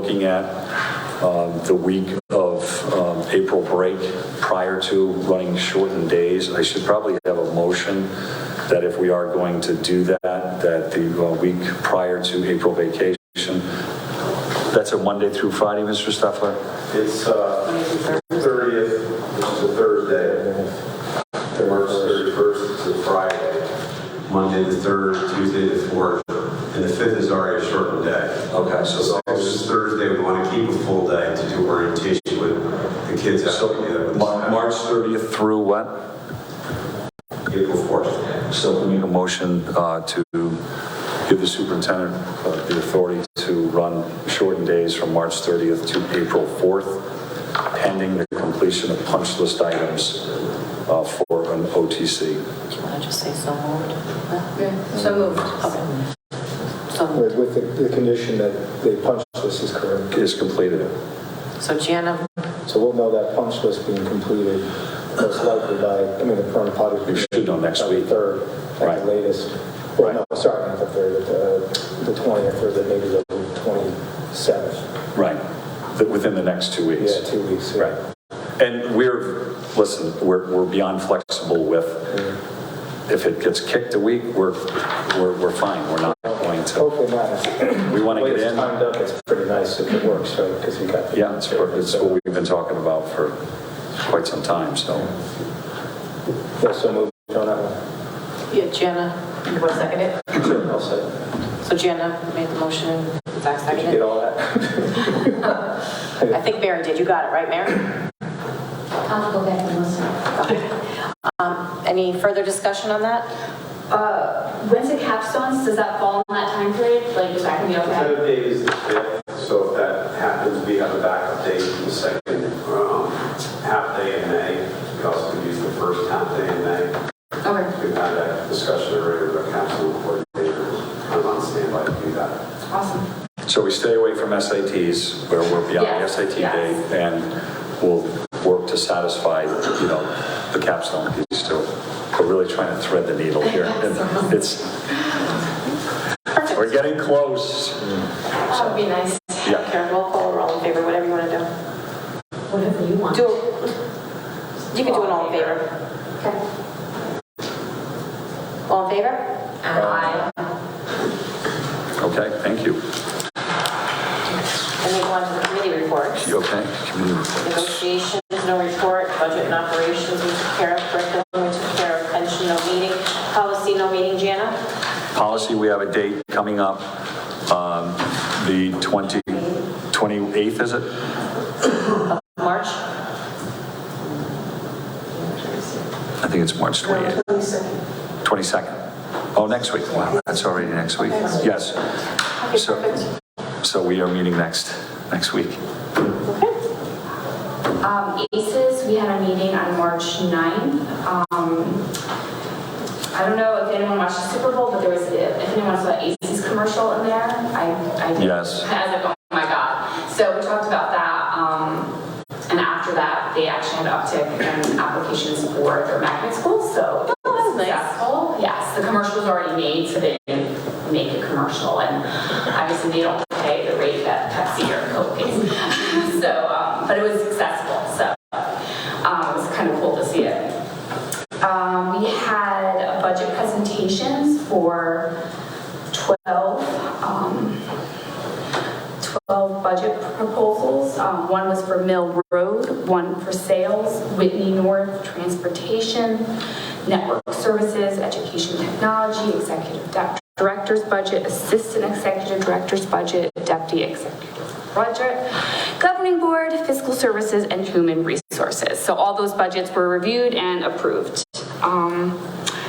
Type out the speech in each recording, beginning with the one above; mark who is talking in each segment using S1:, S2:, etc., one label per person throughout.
S1: Looking at um, the week of um, April break prior to running shortened days, I should probably have a motion that if we are going to do that, that the uh, week prior to April vacation, that's a Monday through Friday, Mr. Stuffler?
S2: It's uh, 30th, which is a Thursday. and March 31st is a Friday. Monday the 3rd, Tuesday the 4th, and the 5th is already a shortened day.
S1: Okay,
S2: So it's just Thursday, we want to keep a full day to do orientation with the kids. out together with the
S1: Mar-
S2: staff.
S1: March 30th through what?
S2: April 4th.
S1: So we need a motion uh, to give the superintendent uh, the authority to run shortened days from March 30th to April 4th, pending the completion of punch list items uh, for an OTC.
S3: Do you want to just say so moved?
S4: So moved.
S3: Okay. So moved.
S5: With, with the, the condition that the punch list is correct.
S1: Is completed.
S3: So Jana,
S5: So we'll know that punch list being completed most likely by, I mean, the current
S1: We
S5: potty.
S1: should know next week.
S5: Third, at
S1: Right.
S5: the latest. Well, no, sorry, not the third, but the, the twentieth or the, maybe the twenty-seventh.
S1: Right. Th- Within the next two weeks.
S5: Yeah, two weeks. yeah.
S1: Right. And we're, listen, we're, we're beyond flexible with, if it gets kicked a week, we're, we're, we're fine. We're not going to,
S5: Hopefully not.
S1: we want to
S5: Way
S1: get in.
S5: it's timed up, it's pretty nice if it works, right? Because we got. the-
S1: Yeah, it's, it's what we've been talking about for quite some time, so.
S5: Yeah, so moved on that
S3: yeah, Jana,
S4: And who seconded it?
S5: one. Sure, I'll say.
S3: so Jana made the motion, Zach
S5: Did you get
S3: seconded.
S5: all that?
S3: it. I think Mary did, you got it, right, Mary?
S6: I'll go back and listen.
S3: Um, Any further discussion on that?
S6: When's the capstones? Does that fall in that time period? Like, is that gonna be okay?
S2: Tentative date is the 5th, so if that happens, we have a backup date for the second um, half day in May. We also could use the first half day in May.
S6: Okay,
S2: We've had that discussion already with our council coordinator. I'm on standby to do that.
S6: awesome.
S1: So we stay away from SATs, where we're beyond the
S6: Yes,
S1: SAT
S6: yes.
S1: date, and we'll work to satisfy, you know, the capstone piece too. We're really trying to thread the needle here. and It's, we're getting close.
S6: That would be nice.
S1: Yeah,
S3: Karen, roll call, or all in favor, whatever you want to
S6: Whatever you
S3: do.
S6: want.
S3: Do, you can do an all in favor.
S6: Okay.
S3: All in favor?
S6: Aye.
S1: okay, thank you.
S3: And we go on to the committee reports.
S1: You okay? Committee reports.
S3: Negotiations, no report. Budget and operations, we took care of. Curriculum, we took care of. Pension, no meeting. Policy, no meeting. Jana?
S1: Policy, we have a date coming up, um, the 20, 28th, is it?
S3: March?
S1: I think it's March 28th. 22nd. Oh, next week. Wow, that's already next week. Yes. So, so we are meeting next, next week.
S3: Okay.
S6: Um, ACES, we had a meeting on March 9th. Um, I don't know if anyone watched the Super Bowl, but there was, if anyone saw ACES commercial in there, I, I. did.
S1: Yes.
S6: I was like, oh my God. So we talked about that, um, and after that, they actually had an uptick in applications for their magnet schools, so. it was
S3: that's nice.
S6: successful. Yes, the commercial was already made, so they didn't make a commercial, and obviously they don't pay the rate that Pepsi or Coke pays. So, um, but it was successful, so, um, it was kind of cool to see it. Um, we had budget presentations for 12, um, 12 budget proposals. Um, One was for Mill Road, one for sales, Whitney North, transportation, network services, education technology, executive di- director's budget, assistant executive director's budget, deputy executive budget, governing board, fiscal services, and human resources. So all those budgets were reviewed and approved. Um,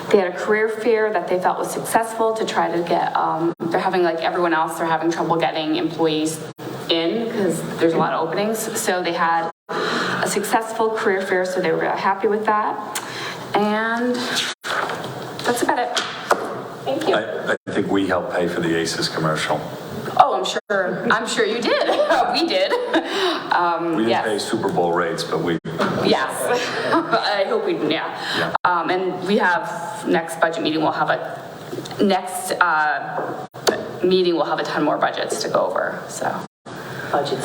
S6: they had a career fair that they felt was successful to try to get, um, they're having, like everyone else, they're having trouble getting employees in because there's a lot of openings. So they had a successful career fair, so they were really happy with that. And that's about it.
S3: Thank you.
S1: I, I think we helped pay for the Aces commercial.
S6: Oh, I'm sure, I'm sure you did. We did. Um,
S1: We didn't
S6: yes.
S1: pay Super Bowl rates, but we,
S6: Yes. I hope we, yeah. Um, and we have, next budget meeting, we'll have a, next, uh, meeting, we'll have a ton more budgets to go over, so.
S3: budget